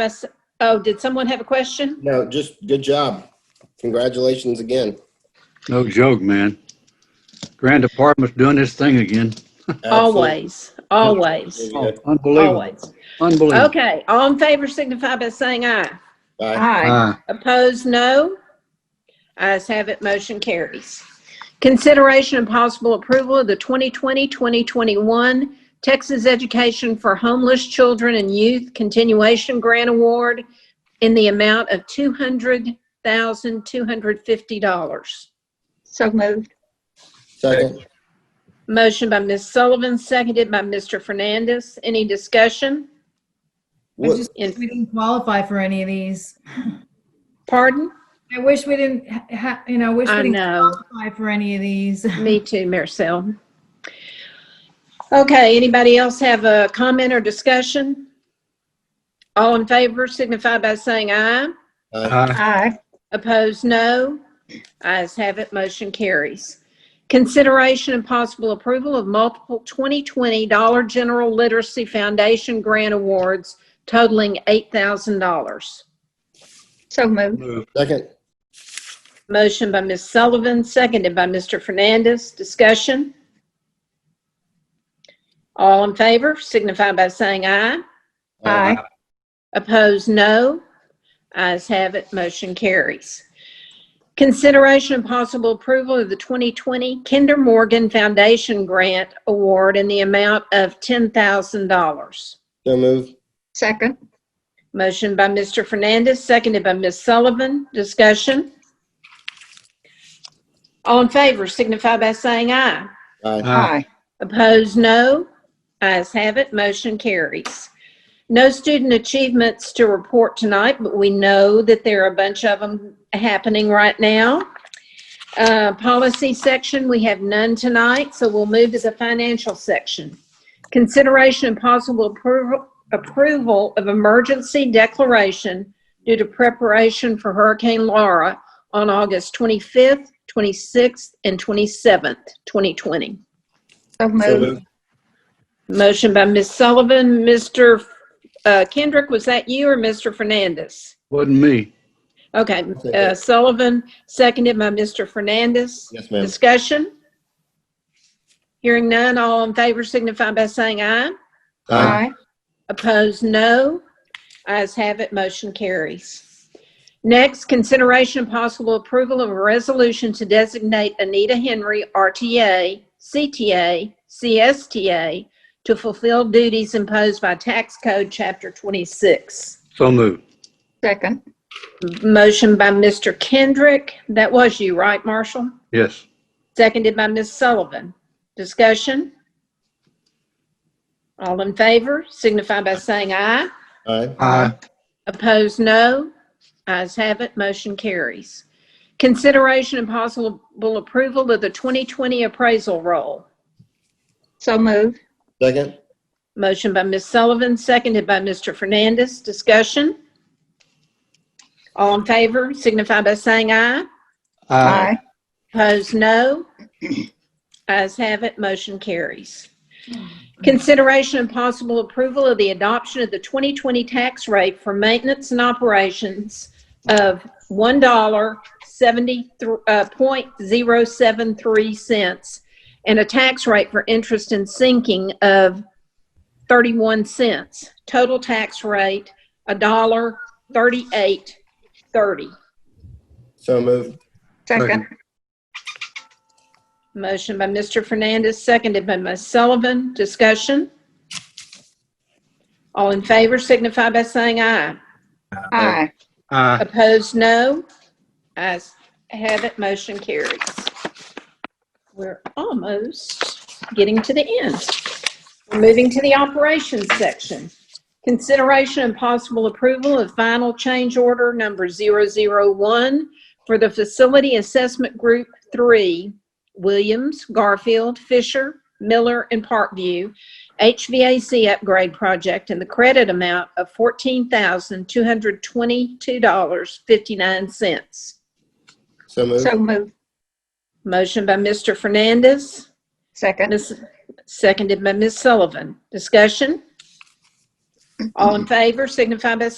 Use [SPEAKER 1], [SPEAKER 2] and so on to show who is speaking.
[SPEAKER 1] us, oh, did someone have a question?
[SPEAKER 2] No, just good job. Congratulations again.
[SPEAKER 3] No joke, man. Grand Department's doing this thing again. Oh,
[SPEAKER 1] Always, always,
[SPEAKER 2] Absolutely.
[SPEAKER 3] Unbelievable,
[SPEAKER 1] always.
[SPEAKER 3] unbelievable.
[SPEAKER 1] Okay, all in favor signify by saying aye.
[SPEAKER 2] Bye.
[SPEAKER 4] Aye.
[SPEAKER 3] Ah,
[SPEAKER 1] Opposed, no. Ayes have it, motion carries. Consideration and possible approval of the 2020-2021 Texas Education for Homeless Children and Youth Continuation Grant Award in the amount of $200,250.
[SPEAKER 4] So moved.
[SPEAKER 2] Second.
[SPEAKER 1] Motion by Ms. Sullivan, seconded by Mr. Fernandez. Any discussion?
[SPEAKER 5] I
[SPEAKER 2] What-
[SPEAKER 5] just
[SPEAKER 1] In-
[SPEAKER 5] wish we didn't qualify for any of these.
[SPEAKER 1] Pardon?
[SPEAKER 5] I wish we didn't, ha- ha- you know, wish
[SPEAKER 1] I
[SPEAKER 5] we didn't
[SPEAKER 1] know.
[SPEAKER 5] qualify for any of these.
[SPEAKER 1] Me too, Maricel. Okay, anybody else have a comment or discussion? All in favor signify by saying aye.
[SPEAKER 3] ah,
[SPEAKER 4] Aye.
[SPEAKER 1] Opposed, no. Ayes have it, motion carries. Consideration and possible approval of multiple 2020 Dollar General Literacy Foundation grant awards totaling $8,000.
[SPEAKER 4] So moved.
[SPEAKER 3] move.
[SPEAKER 2] Second.
[SPEAKER 1] Motion by Ms. Sullivan, seconded by Mr. Fernandez. Discussion? All in favor signify by saying aye.
[SPEAKER 4] Aye.
[SPEAKER 1] Opposed, no. Ayes have it, motion carries. Consideration and possible approval of the 2020 Kinder Morgan Foundation Grant Award in the amount of $10,000.
[SPEAKER 2] So move.
[SPEAKER 4] Second.
[SPEAKER 1] Motion by Mr. Fernandez, seconded by Ms. Sullivan. Discussion? All in favor signify by saying aye.
[SPEAKER 2] Aye.
[SPEAKER 3] Ah,
[SPEAKER 1] Opposed, no. Ayes have it, motion carries. No student achievements to report tonight, but we know that there are a bunch of them happening right now. Uh, Policy section, we have none tonight, so we'll move to the financial section. Consideration and possible approval, approval of emergency declaration due to preparation for Hurricane Laura on August 25th, 26th, and 27th, 2020.
[SPEAKER 2] So
[SPEAKER 4] So moved.
[SPEAKER 2] moved.
[SPEAKER 1] Motion by Ms. Sullivan. Mr. uh, Kendrick, was that you or Mr. Fernandez?
[SPEAKER 3] Wasn't me.
[SPEAKER 1] Okay,
[SPEAKER 2] second.
[SPEAKER 1] uh, Sullivan, seconded by Mr. Fernandez.
[SPEAKER 2] Yes, ma'am.
[SPEAKER 1] Discussion? Hearing none, all in favor signify by saying aye.
[SPEAKER 2] Aye.
[SPEAKER 1] Opposed, no. Ayes have it, motion carries. Next, consideration and possible approval of a resolution to designate Anita Henry, RTA, CTA, CSTA, to fulfill duties imposed by Tax Code Chapter 26.
[SPEAKER 3] So moved.
[SPEAKER 4] Second.
[SPEAKER 1] Motion by Mr. Kendrick. That was you, right, Marshall?
[SPEAKER 3] Yes.
[SPEAKER 1] Seconded by Ms. Sullivan. Discussion? All in favor signify by saying aye.
[SPEAKER 2] Aye.
[SPEAKER 3] Aye.
[SPEAKER 1] Opposed, no. Ayes have it, motion carries. Consideration and possible approval of the 2020 appraisal roll.
[SPEAKER 4] So moved.
[SPEAKER 2] Second.
[SPEAKER 1] Motion by Ms. Sullivan, seconded by Mr. Fernandez. Discussion? All in favor signify by saying aye.
[SPEAKER 4] Aye.
[SPEAKER 1] Opposed, no. Ayes have it, motion carries. Consideration and possible approval of the adoption of the 2020 tax rate for maintenance and operations of uh, $1.73, and a tax rate for interest and sinking of 31 cents. Total tax rate, $1.3830.
[SPEAKER 2] So move.
[SPEAKER 4] Second.
[SPEAKER 1] Motion by Mr. Fernandez, seconded by Ms. Sullivan. Discussion? All in favor signify by saying aye.
[SPEAKER 4] Aye.
[SPEAKER 3] Aye.
[SPEAKER 1] Opposed, no. Ayes have it, motion carries. We're almost getting to the end. We're moving to the operations section. Consideration and possible approval of final change order number 001 for the Facility Assessment Group 3, Williams, Garfield, Fisher, Miller, and Parkview, HVAC upgrade project in the credit amount of $14,222.59.
[SPEAKER 2] So move.
[SPEAKER 4] So moved.
[SPEAKER 1] Motion by Mr. Fernandez,
[SPEAKER 4] Second.
[SPEAKER 1] Ms. seconded by Ms. Sullivan. Discussion? All in favor signify by